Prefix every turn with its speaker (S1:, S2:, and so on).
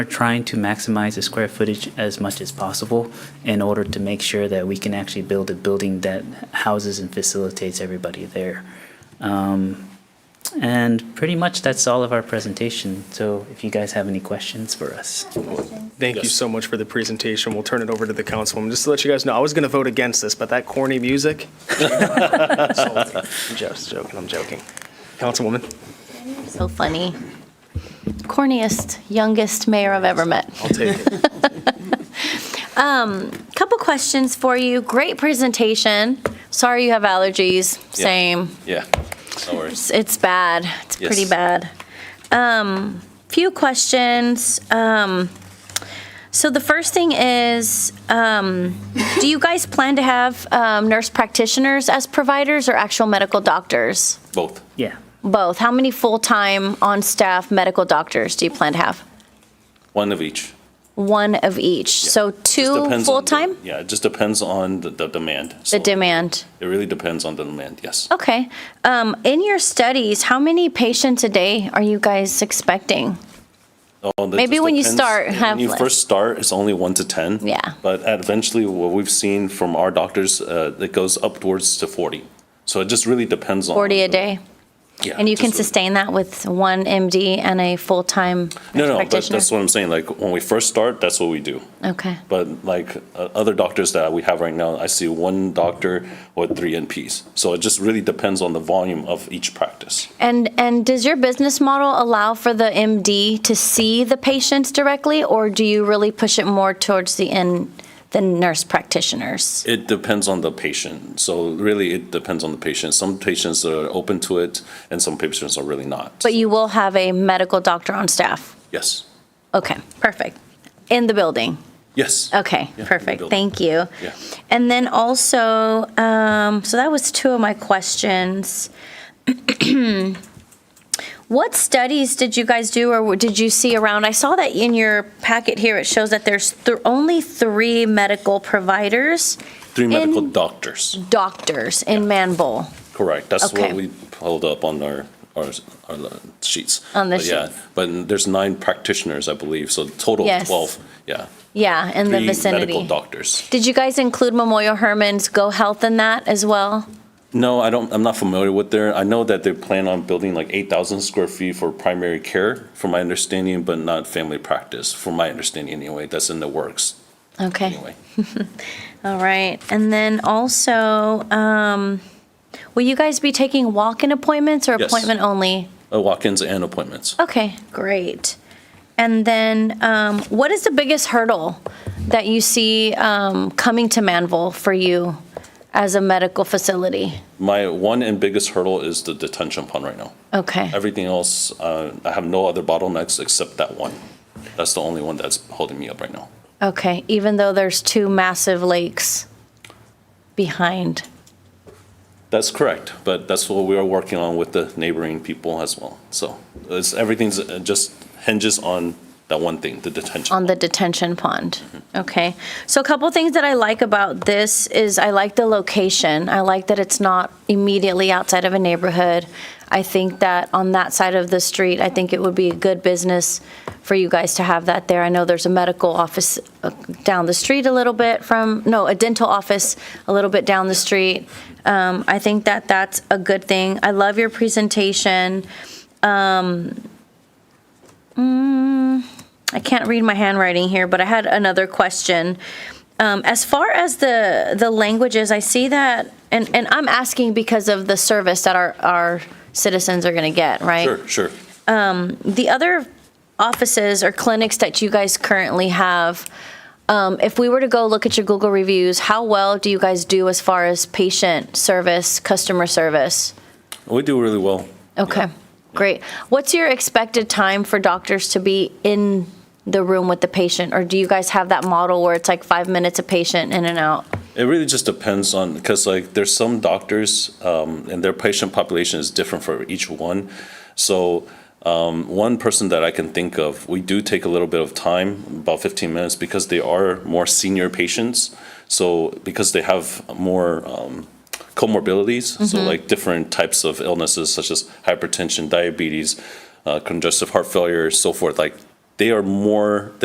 S1: We're trying to maximize the square footage as much as possible in order to make sure that we can actually build a building that houses and facilitates everybody there. Um, And pretty much that's all of our presentation. So if you guys have any questions for us.
S2: Thank you so much for the presentation. We'll turn it over to the councilwoman. Just to let you guys know, I was going to vote against this, but that corny music. I'm just joking, I'm joking. Councilwoman,
S3: So funny. Corniest, youngest mayor I've ever met.
S2: I'll take it.
S3: Couple questions for you. Great presentation. Sorry you have allergies.
S4: Yeah.
S3: Same.
S4: Yeah, no
S3: It's,
S4: worries.
S3: it's bad. It's pretty
S4: Yes.
S3: bad. Um, few questions. Um, so the first thing is, um, do you guys plan to have um, nurse practitioners as providers or actual medical doctors?
S4: Both.
S1: Yeah.
S3: Both. How many full-time on-staff medical doctors do you plan to have?
S4: One of each.
S3: One of each. So
S4: Just
S3: two
S4: depends on the-
S3: full-time?
S4: Yeah, it just depends on the, the demand.
S3: The
S4: So
S3: demand.
S4: It really depends on the demand, yes.
S3: Okay. Um, in your studies, how many patients a day are you guys expecting?
S4: Oh, that
S3: Maybe
S4: just
S3: when you start, have
S4: When you
S3: less.
S4: first start, it's only one to 10.
S3: Yeah.
S4: But at- eventually, what we've seen from our doctors, uh, it goes upwards to 40. So it just really depends on.
S3: 40 a
S4: the-
S3: day?
S4: Yeah.
S3: And you
S4: Uh, just
S3: can
S4: really-
S3: sustain that with one MD and a full-time
S4: No,
S3: nurse
S4: no, but
S3: practitioner?
S4: that's what I'm saying. Like, when we first start, that's what we do.
S3: Okay.
S4: But like uh, other doctors that we have right now, I see one doctor or three NPs. So it just really depends on the volume of each practice.
S3: And, and does your business model allow for the MD to see the patients directly? Or do you really push it more towards the in the nurse practitioners?
S4: It depends on the patient. So really, it depends on the patient. Some patients are open to it, and some patients are really not.
S3: But you will have a medical doctor on staff?
S4: yes,
S3: Okay, perfect. In the building?
S4: yes.
S3: Okay,
S4: Yeah, in the
S3: perfect.
S4: building.
S3: Thank you.
S4: Yeah.
S3: And then also, um, so that was two of my questions. What studies did you guys do or did you see around? I saw that in your packet here, it shows that there's th- only three medical providers,
S4: Three medical
S3: in-
S4: doctors.
S3: doctors in Manville.
S4: Correct. That's
S3: Okay.
S4: what we pulled up on our our, our uh, sheets.
S3: On the
S4: But yeah,
S3: sheets.
S4: but there's nine practitioners, I believe. So total
S3: Yes.
S4: of twelve. Yeah,
S3: Yeah, in the
S4: three medical
S3: vicinity.
S4: doctors.
S3: Did you guys include Memorial Herman's Go Health in that as well?
S4: No, I don't, I'm not familiar with their, I know that they plan on building like 8,000 square feet for primary care, from my understanding, but not family practice, from my understanding anyway, that's in the works
S3: Okay.
S4: anyway.
S3: All right, and then also, um, will you guys be taking walk-in appointments or
S4: Yes.
S3: appointment only?
S4: Uh, Walk-ins and appointments.
S3: Okay, great. And then, um, what is the biggest hurdle that you see, um, coming to Manville for you as a medical facility?
S4: My one and biggest hurdle is the detention pond right now.
S3: Okay,
S4: Everything else, uh, I have no other bottlenecks except that one. That's the only one that's holding me up right now.
S3: okay, even though there's two massive lakes behind.
S4: That's correct, but that's what we are working on with the neighboring people as well. So it's, everything's uh, just hinges on that one thing, the detention.
S3: on the detention pond. Okay. So a couple things that I like about this is I like the location. I like that it's not immediately outside of a neighborhood. I think that on that side of the street, I think it would be a good business for you guys to have that there. I know there's a medical office uh, down the street a little bit from, no, a dental office a little bit down the street. Um, I think that that's a good thing. I love your presentation. Um, mm, I can't read my handwriting here, but I had another question. Um, as far as the the languages, I see that, and and I'm asking because of the service that our our citizens are going to get, right?
S4: Sure, sure.
S3: The other offices or clinics that you guys currently have. Um, if we were to go look at your Google reviews, how well do you guys do as far as patient service, customer service?
S4: We do really well.
S3: Okay, great. What's your expected time for doctors to be in the room with the patient? Or do you guys have that model where it's like five minutes a patient in and out?
S4: It really just depends on, because like, there's some doctors, um, and their patient population is different for each one. So, um, one person that I can think of, we do take a little bit of time, about fifteen minutes, because they are more senior patients. So, because they have more, um, comorbidities, so like different types of illnesses such as hypertension, diabetes, uh, congestive heart failure, so forth, like they are more